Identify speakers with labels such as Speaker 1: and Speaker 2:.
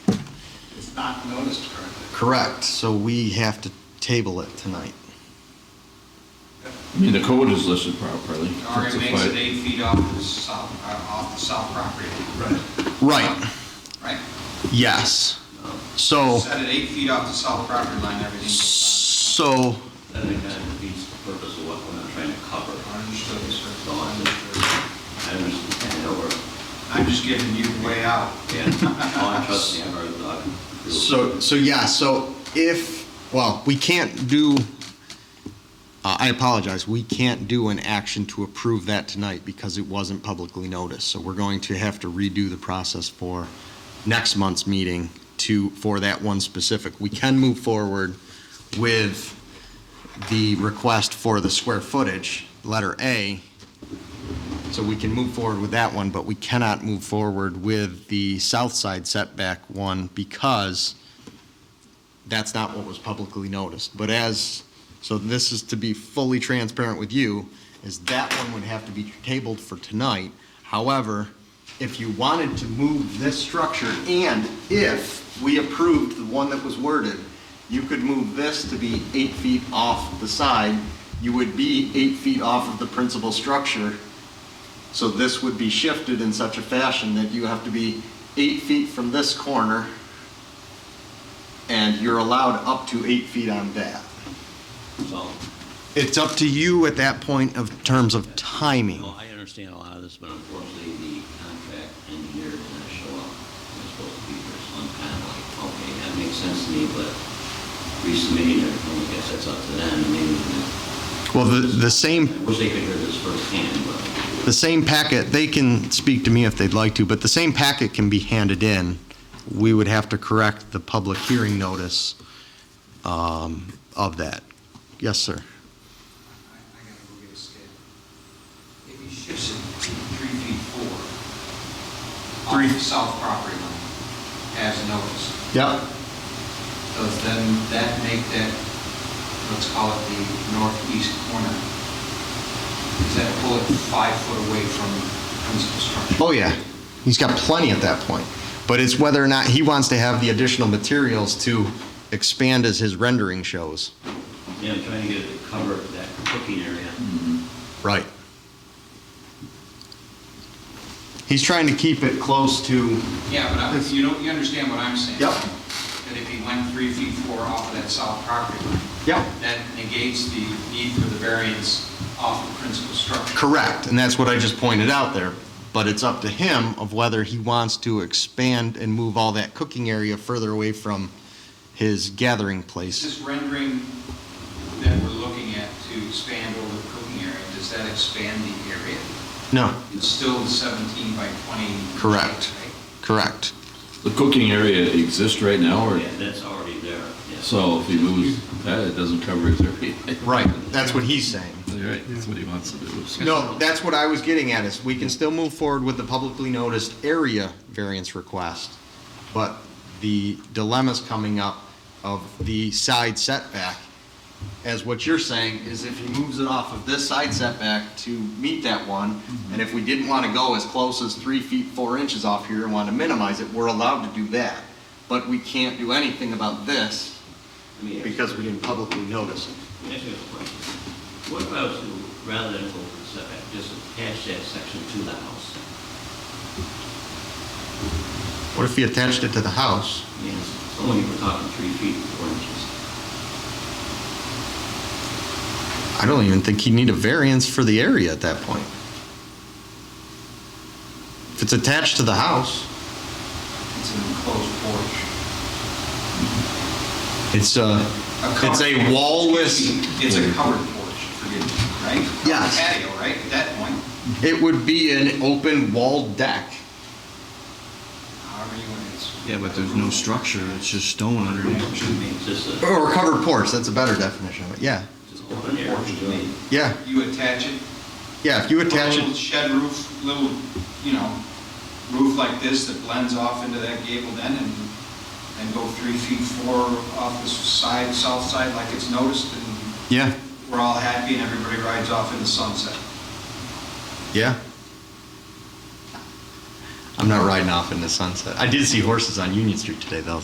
Speaker 1: it's not noticed currently.
Speaker 2: Correct, so we have to table it tonight.
Speaker 3: I mean, the code is listed properly.
Speaker 4: already
Speaker 3: It's a
Speaker 4: makes
Speaker 3: five-
Speaker 4: it eight feet off the south, uh, off the south property,
Speaker 2: Right,
Speaker 4: right?
Speaker 2: yes.
Speaker 3: Oh.
Speaker 2: So,
Speaker 4: Set it eight feet off the south property line, everything goes
Speaker 2: so,
Speaker 5: That again defeats the purpose of what we're trying to cover.
Speaker 4: on. Understood,
Speaker 5: So
Speaker 4: sir.
Speaker 5: I'm just, I understand, or,
Speaker 4: I'm just giving you a way out.
Speaker 5: yeah, oh, I trust me, I've heard the argument.
Speaker 2: so, so yeah, so if, well, we can't do, uh, I apologize, we can't do an action to approve that tonight because it wasn't publicly noticed. So we're going to have to redo the process for next month's meeting to, for that one specific. We can move forward with the request for the square footage, letter A. So we can move forward with that one, but we cannot move forward with the south side setback one because that's not what was publicly noticed. But as, so this is to be fully transparent with you, is that one would have to be tabled for tonight. However, if you wanted to move this structure and if we approved the one that was worded, you could move this to be eight feet off the side. You would be eight feet off of the principal structure. So this would be shifted in such a fashion that you have to be eight feet from this corner, and you're allowed up to eight feet on that.
Speaker 5: So,
Speaker 2: It's up to you at that point of terms of timing.
Speaker 5: no, I understand a lot of this, but unfortunately, the contract engineer didn't show up. It was supposed to be here, so I'm kind of like, okay, that makes sense to me, but resubmitting it, I guess that's up to them, and maybe,
Speaker 2: Well, the, the same,
Speaker 5: I wish they could hear this firsthand, but.
Speaker 2: the same packet, they can speak to me if they'd like to, but the same packet can be handed in. We would have to correct the public hearing notice um, of that. Yes, sir.
Speaker 4: I I gotta go get a scale. If he shifts it three feet four, off the south property line, as noticed,
Speaker 2: Yep.
Speaker 4: does then that make that, let's call it the northeast corner, does that pull it five foot away from principal structure?
Speaker 2: Oh, yeah. He's got plenty at that point. But it's whether or not he wants to have the additional materials to expand as his rendering shows.
Speaker 5: Yeah, I'm trying to get it to cover that cooking area.
Speaker 2: Right. He's trying to keep it close to.
Speaker 4: Yeah, but I- you know, you understand what I'm saying?
Speaker 2: Yep.
Speaker 4: That if he went three feet four off of that south property line,
Speaker 2: Yep.
Speaker 4: that negates the need for the variance off the principal structure.
Speaker 2: Correct, and that's what I just pointed out there. But it's up to him of whether he wants to expand and move all that cooking area further away from his gathering
Speaker 4: Is
Speaker 2: place.
Speaker 4: this rendering that we're looking at to expand over the cooking area, does that expand the area?
Speaker 2: No,
Speaker 4: It's still the 17 by 20.
Speaker 2: Correct.
Speaker 4: right?
Speaker 2: correct.
Speaker 3: The cooking area exists right now, or,
Speaker 5: Yeah, that's already there, yeah.
Speaker 3: so if he moves that, it doesn't cover his area.
Speaker 2: Right, that's what he's saying.
Speaker 3: You're right, that's what he wants to do.
Speaker 2: No, that's what I was getting at, is we can still move forward with the publicly noticed area variance request, but the dilemma's coming up of the side setback, as what you're saying is if he moves it off of this side setback to meet that one, and if we didn't want to go as close as three feet, four inches off here and want to minimize it, we're allowed to do that. But we can't do anything about this
Speaker 5: Let me ask you-
Speaker 2: because we didn't publicly notice it.
Speaker 5: let me ask you a question. What if I was to, rather than go for the setback, just attach that section to the house?
Speaker 2: What if he attached it to the house?
Speaker 5: Yes, so only we're talking three feet, four inches.
Speaker 2: I don't even think he'd need a variance for the area at that point. If it's attached to the house,
Speaker 4: It's an enclosed porch.
Speaker 2: it's uh, a, it's a
Speaker 4: covered-
Speaker 2: wall-less,
Speaker 4: Excuse me, It's a covered porch, forgive me, right?
Speaker 2: Yes.
Speaker 4: Patio, right, at that point,
Speaker 2: it would be an open walled deck.
Speaker 4: however you want to.
Speaker 6: Yeah, but there's no structure, it's just stone underneath.
Speaker 4: To me.
Speaker 5: It's just a,
Speaker 2: Or a covered porch, that's a better definition of it, yeah.
Speaker 5: just
Speaker 4: Open
Speaker 5: open air.
Speaker 4: porch to me.
Speaker 2: Yeah,
Speaker 4: You attach it,
Speaker 2: yeah, if you
Speaker 4: put a
Speaker 2: attach
Speaker 4: little
Speaker 2: it,
Speaker 4: shed roof, little, you know, roof like this that blends off into that gabled end and, and go three feet four off the side, south side like it's noticed and
Speaker 2: yeah,
Speaker 4: we're all happy and everybody rides off in the sunset.
Speaker 2: yeah. I'm not riding off in the sunset. I did see horses on Union Street today, though,